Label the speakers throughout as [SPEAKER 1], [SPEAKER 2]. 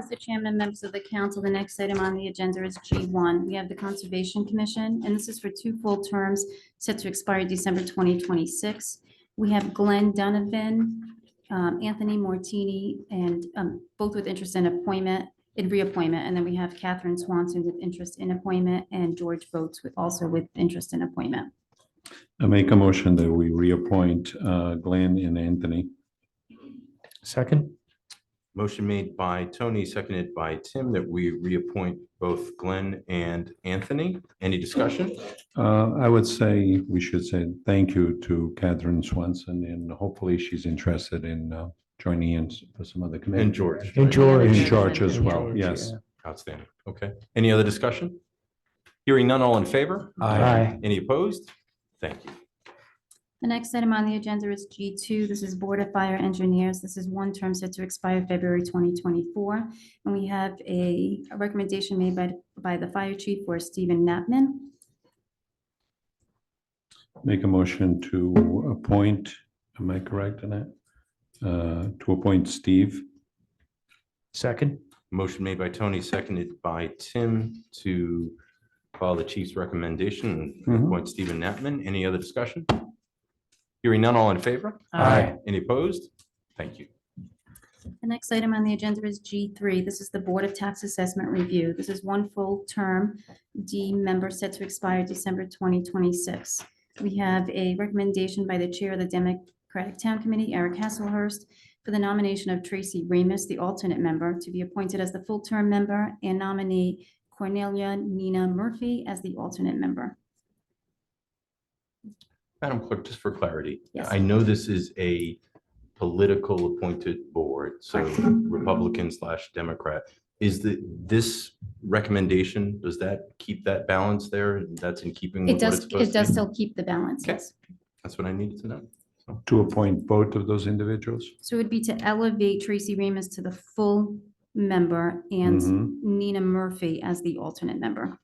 [SPEAKER 1] Mr. Chairman, members of the council, the next item on the agenda is G1. We have the Conservation Commission, and this is for two full terms set to expire December 2026. We have Glenn Donovan, um, Anthony Mortini, and um, both with interest in appointment, in reappointment. And then we have Catherine Swanson with interest in appointment and George Boats with, also with interest in appointment.
[SPEAKER 2] I make a motion that we reappoint uh, Glenn and Anthony.
[SPEAKER 3] Second?
[SPEAKER 4] Motion made by Tony, seconded by Tim, that we reappoint both Glenn and Anthony. Any discussion?
[SPEAKER 2] Uh, I would say, we should say thank you to Catherine Swanson, and hopefully she's interested in uh, joining in s- for some other committee.
[SPEAKER 4] And George.
[SPEAKER 3] And George.
[SPEAKER 2] In George as
[SPEAKER 3] And
[SPEAKER 2] well,
[SPEAKER 3] George,
[SPEAKER 2] yes.
[SPEAKER 3] yeah.
[SPEAKER 4] Outstanding. Okay. Any other discussion? Hearing none, all in favor?
[SPEAKER 3] Aye.
[SPEAKER 4] Any opposed? Thank you.
[SPEAKER 1] The next item on the agenda is G2. This is Board of Fire Engineers. This is one term set to expire February 2024. And we have a a recommendation made by, by the fire chief for Stephen Knappman.
[SPEAKER 2] Make a motion to appoint, am I correct in that? Uh, To appoint Steve.
[SPEAKER 3] Second?
[SPEAKER 4] Motion made by Tony, seconded by Tim to follow the chief's recommendation and
[SPEAKER 2] Mhm.
[SPEAKER 4] appoint Stephen Knappman. Any other discussion? Hearing none, all in favor?
[SPEAKER 3] Aye.
[SPEAKER 4] Any opposed? Thank you.
[SPEAKER 1] The next item on the agenda is G3. This is the Board of Tax Assessment Review. This is one full term D member set to expire December 2026. We have a recommendation by the Chair of the Democratic Town Committee, Eric Hasselhurst, for the nomination of Tracy Remus, the alternate member, to be appointed as the full-term member, and nominee Cornelia Nina Murphy as the alternate member.
[SPEAKER 4] Madam Clerk, just for clarity,
[SPEAKER 1] Yes.
[SPEAKER 4] I know this is a political appointed board, so Republican slash Democrat. Is the, this recommendation, does that keep that balance there? That's in keeping with
[SPEAKER 1] It
[SPEAKER 4] what it's
[SPEAKER 1] does, it
[SPEAKER 4] supposed to
[SPEAKER 1] does
[SPEAKER 4] be?
[SPEAKER 1] still keep the balance,
[SPEAKER 4] Okay.
[SPEAKER 1] yes.
[SPEAKER 4] That's what I needed to know.
[SPEAKER 2] To appoint both of those individuals?
[SPEAKER 1] So it would be to elevate Tracy Remus to the full member
[SPEAKER 4] Mm-hmm.
[SPEAKER 1] and
[SPEAKER 2] Mhm.
[SPEAKER 1] Nina Murphy as the alternate member.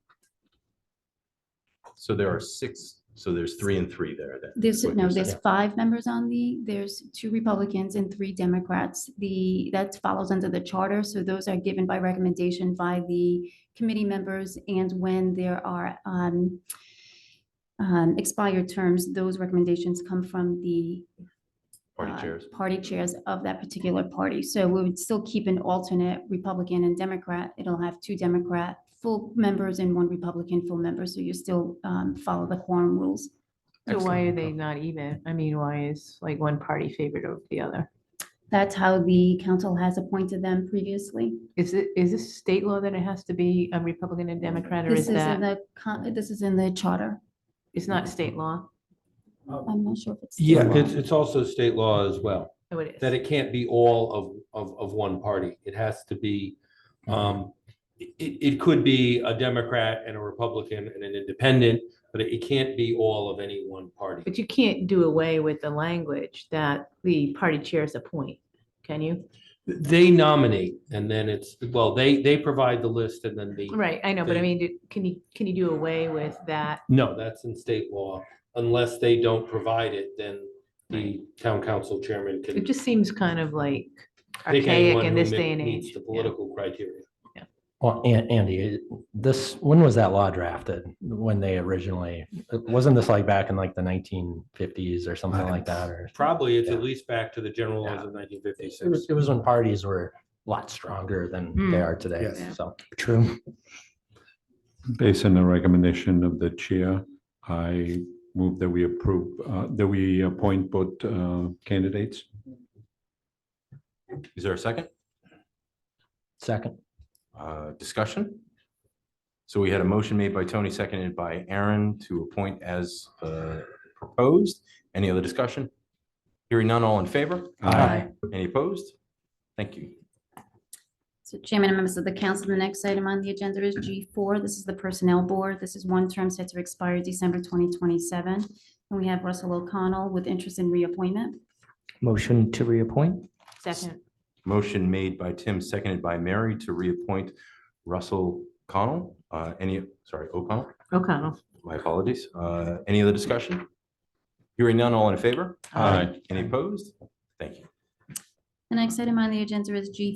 [SPEAKER 4] So there are six, so there's three and three there then.
[SPEAKER 1] There's,
[SPEAKER 4] is what
[SPEAKER 1] no,
[SPEAKER 4] you're
[SPEAKER 1] there's
[SPEAKER 4] saying.
[SPEAKER 1] five members on the, there's two Republicans and three Democrats. The, that follows under the charter, so those are given by recommendation by the committee members. And when there are um, um, expired terms, those recommendations come from the uh,
[SPEAKER 4] Party chairs.
[SPEAKER 1] Party chairs of that particular party. So we would still keep an alternate Republican and Democrat. It'll have two Democrat full members and one Republican full member. So you still um, follow the quorum rules.
[SPEAKER 5] So why are
[SPEAKER 4] Excellent.
[SPEAKER 5] they not even? I mean, why is like one party favored over the other?
[SPEAKER 1] That's how the council has appointed them previously.
[SPEAKER 5] Is it, is this state law that it has to be a Republican and Democrat or
[SPEAKER 1] This
[SPEAKER 5] is
[SPEAKER 1] is in
[SPEAKER 5] that,
[SPEAKER 1] the, con- this is in the charter.
[SPEAKER 5] it's not state law?
[SPEAKER 1] I'm not sure if it's.
[SPEAKER 6] Yeah, it's, it's also state law as well,
[SPEAKER 5] Oh, it
[SPEAKER 6] that
[SPEAKER 5] is.
[SPEAKER 6] it can't be all of, of, of one party. It has to be,
[SPEAKER 7] Mm-hmm.
[SPEAKER 6] um, it, it could be a Democrat and a Republican and an independent, but it can't be all of any one party.
[SPEAKER 5] But you can't do away with the language that the party chairs appoint, can you?
[SPEAKER 6] They nominate and then it's, well, they, they provide the list and then the,
[SPEAKER 5] Right, I know, but I
[SPEAKER 6] They-
[SPEAKER 5] mean, do- can you, can you do away with that?
[SPEAKER 6] no, that's in state law. Unless they don't provide it, then the town council chairman can.
[SPEAKER 5] It just seems kind of like
[SPEAKER 6] pick
[SPEAKER 5] archaic
[SPEAKER 6] anyone
[SPEAKER 5] in
[SPEAKER 6] who
[SPEAKER 5] this
[SPEAKER 6] mi-
[SPEAKER 5] day and
[SPEAKER 6] meets
[SPEAKER 5] age.
[SPEAKER 6] The
[SPEAKER 5] Yeah.
[SPEAKER 6] political criteria.
[SPEAKER 7] Well, An- Andy, it- this, when was that law drafted? When they originally, wasn't this like back in like the nineteen fifties or something like that? Or
[SPEAKER 6] Probably it's
[SPEAKER 7] Yeah.
[SPEAKER 6] at least back to the general laws
[SPEAKER 7] Yeah.
[SPEAKER 6] of nineteen
[SPEAKER 7] it was,
[SPEAKER 6] fifty-six.
[SPEAKER 7] it was when parties were a lot stronger than
[SPEAKER 2] Hmm.
[SPEAKER 7] they
[SPEAKER 5] Mm.
[SPEAKER 7] are today.
[SPEAKER 5] Yes.
[SPEAKER 7] So true.
[SPEAKER 2] Based on the recommendation of the chair, I move that we approve, uh, that we appoint both uh, candidates.
[SPEAKER 4] Is there a second?
[SPEAKER 7] Second,
[SPEAKER 4] Uh, Discussion? So we had a motion made by Tony, seconded by Aaron to appoint as uh, proposed. Any other discussion? Hearing none, all in favor?
[SPEAKER 2] Aye.
[SPEAKER 4] Any opposed? Thank you.
[SPEAKER 1] So Chairman and members of the council, the next item on the agenda is G4. This is the Personnel Board. This is one term set to expire December 2027. And we have Russell O'Connell with interest in reappointment.
[SPEAKER 3] Motion to reappoint?
[SPEAKER 5] Second,
[SPEAKER 4] Motion made by Tim, seconded by Mary to reappoint Russell Connell. Uh, Any, sorry, O'Connell,
[SPEAKER 5] O'Connell,
[SPEAKER 4] my apologies. Uh, Any other discussion? Hearing none, all in favor?
[SPEAKER 2] Aye.
[SPEAKER 4] Any opposed? Thank you.
[SPEAKER 1] The next item on the agenda is G